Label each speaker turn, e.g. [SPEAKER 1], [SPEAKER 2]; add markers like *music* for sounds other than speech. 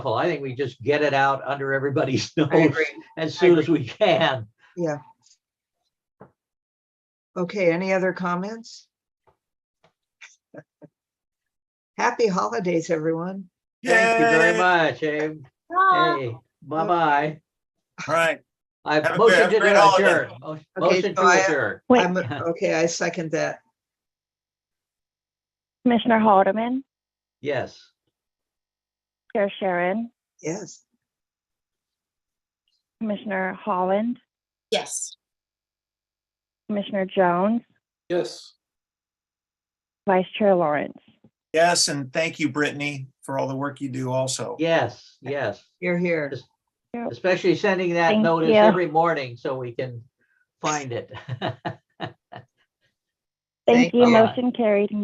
[SPEAKER 1] helpful. I think we just get it out under everybody's *laughs*
[SPEAKER 2] I
[SPEAKER 1] nose
[SPEAKER 2] agree.
[SPEAKER 1] as soon as we can.
[SPEAKER 2] Okay, any other comments? Happy holidays, everyone.
[SPEAKER 1] Thank you very
[SPEAKER 3] Yay!
[SPEAKER 1] much, Abe. Hey, bye-bye.
[SPEAKER 3] All right.
[SPEAKER 1] I
[SPEAKER 3] Have a
[SPEAKER 1] motion
[SPEAKER 3] great-
[SPEAKER 1] to
[SPEAKER 3] have a great holiday.
[SPEAKER 1] adjourn. Mo-
[SPEAKER 2] Okay,
[SPEAKER 1] Motion
[SPEAKER 2] so I-
[SPEAKER 1] to adjourn.
[SPEAKER 4] Wait,
[SPEAKER 2] I'm, okay, I second that.
[SPEAKER 4] Commissioner Haldeman,
[SPEAKER 1] Yes.
[SPEAKER 4] Chair Sharon,
[SPEAKER 2] Yes.
[SPEAKER 4] Commissioner Holland,
[SPEAKER 5] Yes.
[SPEAKER 4] Commissioner Jones,
[SPEAKER 6] Yes.
[SPEAKER 4] Vice Chair Lawrence.
[SPEAKER 3] Yes, and thank you, Brittany, for all the work you do also.
[SPEAKER 1] Yes, yes,
[SPEAKER 2] You're here.
[SPEAKER 1] especially sending that
[SPEAKER 4] Thank
[SPEAKER 1] notice
[SPEAKER 4] you.
[SPEAKER 1] every morning so we can find it. *laughs*
[SPEAKER 4] Thank
[SPEAKER 2] Thank
[SPEAKER 4] you.
[SPEAKER 1] you.
[SPEAKER 4] Motion carried.